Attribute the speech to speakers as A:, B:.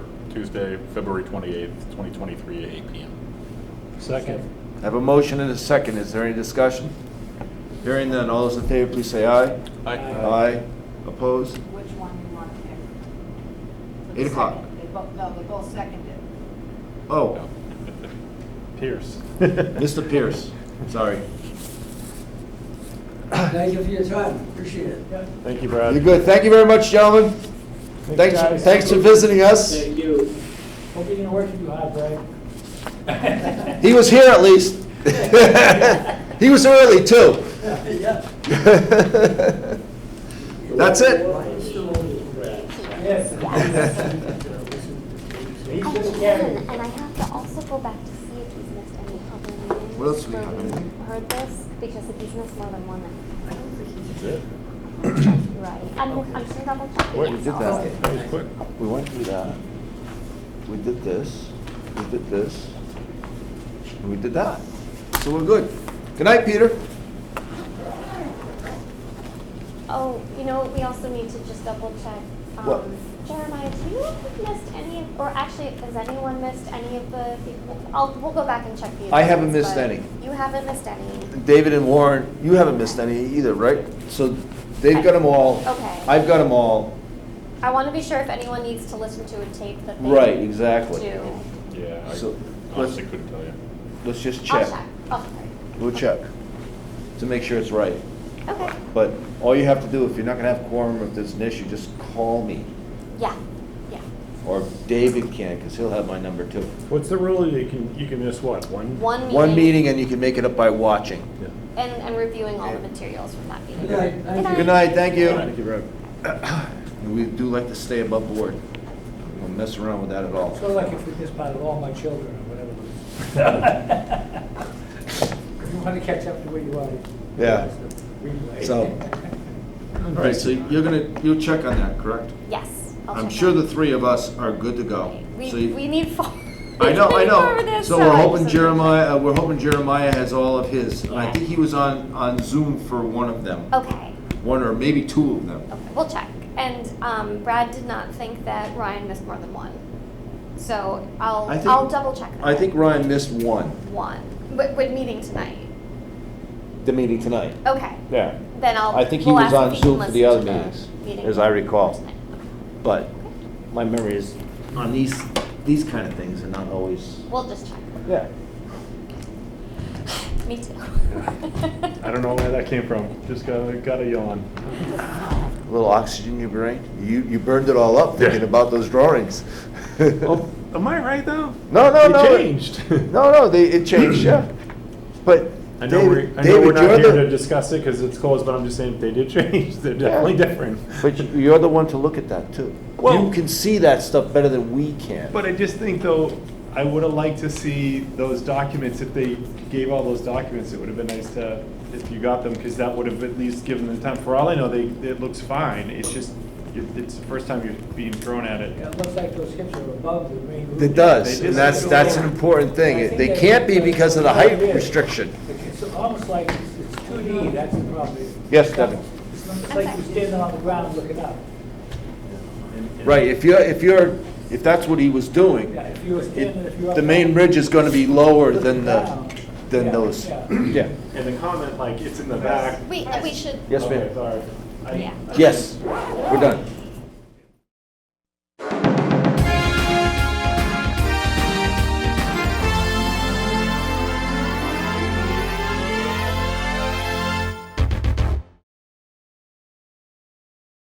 A: Tuesday, February 28th, 2023 at 8 PM.
B: Second.
C: I have a motion and a second. Is there any discussion? Hearing none. All those in favor, please say aye.
B: Aye.
C: Aye. Opposed?
D: Which one you want to pick?
C: Eight o'clock.
D: They both, no, they both seconded.
C: Oh,
A: Pierce.
C: Mr. Pierce, sorry.
E: Thank you for your time, appreciate it.
B: Thank you,
C: You're
B: Brad.
C: good. Thank you very much, gentlemen. Thanks,
B: guys.
C: thanks for visiting us.
F: Thank you.
B: Hope you didn't work too hard, Brad.
C: He was here at least. He was early too.
E: Yeah.
C: That's it.
F: Brian Stone, Brad.
G: I can, and I have to also go back to see if he's missed any other meetings.
C: What else do we
G: where
C: have? Anything?
G: Heard this, because if he's missed more than one, then
A: That's it.
G: right. I'm, I'm just double checking.
C: Wait, we
G: yes,
C: did
G: I'll-
C: that.
A: That was quick.
C: We went through that. We did this, we did this, and we did that. So we're good. Good night, Peter.
G: Oh, you know, what? we also need to just double check.
C: What?
G: um, Jeremiah, do you know if we've missed any, of- or actually, has anyone missed any of the, I'll, we'll go back and check the.
C: I haven't
G: agendas,
C: missed
G: but
C: any.
G: You haven't missed any.
C: David and Warren, you haven't missed any either, right? So they've got them all.
G: Okay.
C: I've got them all.
G: I want to be sure if anyone needs to listen to a tape that they.
C: Right, exactly.
G: Do.
A: Yeah,
C: So,
A: I
C: let's-
A: honestly couldn't tell you.
C: Let's just
G: I'll
C: check.
G: check. Oh, I'll check.
C: We'll check to make sure it's right.
G: Okay,
C: But all you have to do, if you're not gonna have quorum, if there's an issue, just call me.
G: yeah, yeah.
C: Or David can, because he'll have my number too.
B: What's the rule? You can, you can miss what, one?
G: One meeting.
C: One meeting and you can make it up by watching.
B: Yeah.
G: And, and reviewing all the materials from that meeting.
E: Good night. Thank you.
C: Good night, thank you.
B: Thank you, Brad.
C: We do like to stay above board. We don't mess around with that at all.
H: So like if we just part of all my children or whatever. You want to catch up to where you are.
C: Yeah.
H: Replay.
C: So- All right, so you're gonna, you'll check on that, correct?
G: Yes. I'll
C: I'm
G: check
C: sure
G: on
C: the
G: it.
C: three of us are good to go.
G: We,
C: So you-
G: we need four.
C: I know, I
G: for
C: know.
G: this,
C: So we're
G: I
C: hoping
G: just-
C: Jeremiah, uh, we're hoping Jeremiah has all of his. And I
G: Yeah.
C: think he was on, on Zoom for one of them.
G: Okay,
C: One or maybe two of them.
G: okay, we'll check. And, um, Brad did not think that Ryan missed more than one. So I'll,
C: I think-
G: I'll double check that.
C: I think Ryan missed one,
G: One, with, with meeting tonight.
C: the meeting tonight.
G: Okay,
C: Yeah.
G: then I'll.
C: I think he
G: we'll
C: was
G: ask if
C: on
G: can
C: Zoom for
G: listen
C: the
G: to
C: other meetings,
G: meeting
C: as I recall.
G: tonight.
C: But my memory is on these, these kind of things are not always.
G: We'll just check.
C: Yeah.
G: Me too.
B: I don't know where that came from. Just got, a got a yawn.
C: A little oxygen in your brain. You, you burned it all up thinking
B: Yeah.
C: about those drawings.
B: Oh, am I right, though?
C: No, no,
B: It
C: no.
B: changed.
C: No, no, they, it changed, yeah. But
B: I know we're,
C: David,
B: I know we're
C: David,
B: not
C: you're
B: here to
C: the,
B: discuss it because it's closed, but I'm just saying they did change. They're definitely different.
C: but you- you're the one to look at that too.
B: Well-
C: You can see that stuff better than we can.
B: But I just think though, I would have liked to see those documents, if they gave all those documents, it would have been nice to, if you got them, because that would have at least given them time. For all I know, they, it looks fine, it's just, it- it's the first time you're being thrown at
H: Yeah,
B: it.
H: It looks like those hips are above the main roof.
C: It does,
B: They
C: and
B: just-
C: that's, that's an important thing. It- They can't be because of the height restriction.
H: It's almost like it's it's 2D, that's the problem.
C: Yes, Devin.
H: It's almost like you're standing on the ground looking up.
C: Right, if you're, if you're, if that's what he was doing,
H: Yeah, if you were standing, if you were.
C: it- the main ridge is gonna be lower than the, than those. Yeah.
B: And the comment, like, it's in the back.
G: We, we should,
C: Yes,
B: Okay,
C: ma'am.
B: sorry. I-
G: Yeah.
B: I-
C: Yes, we're done.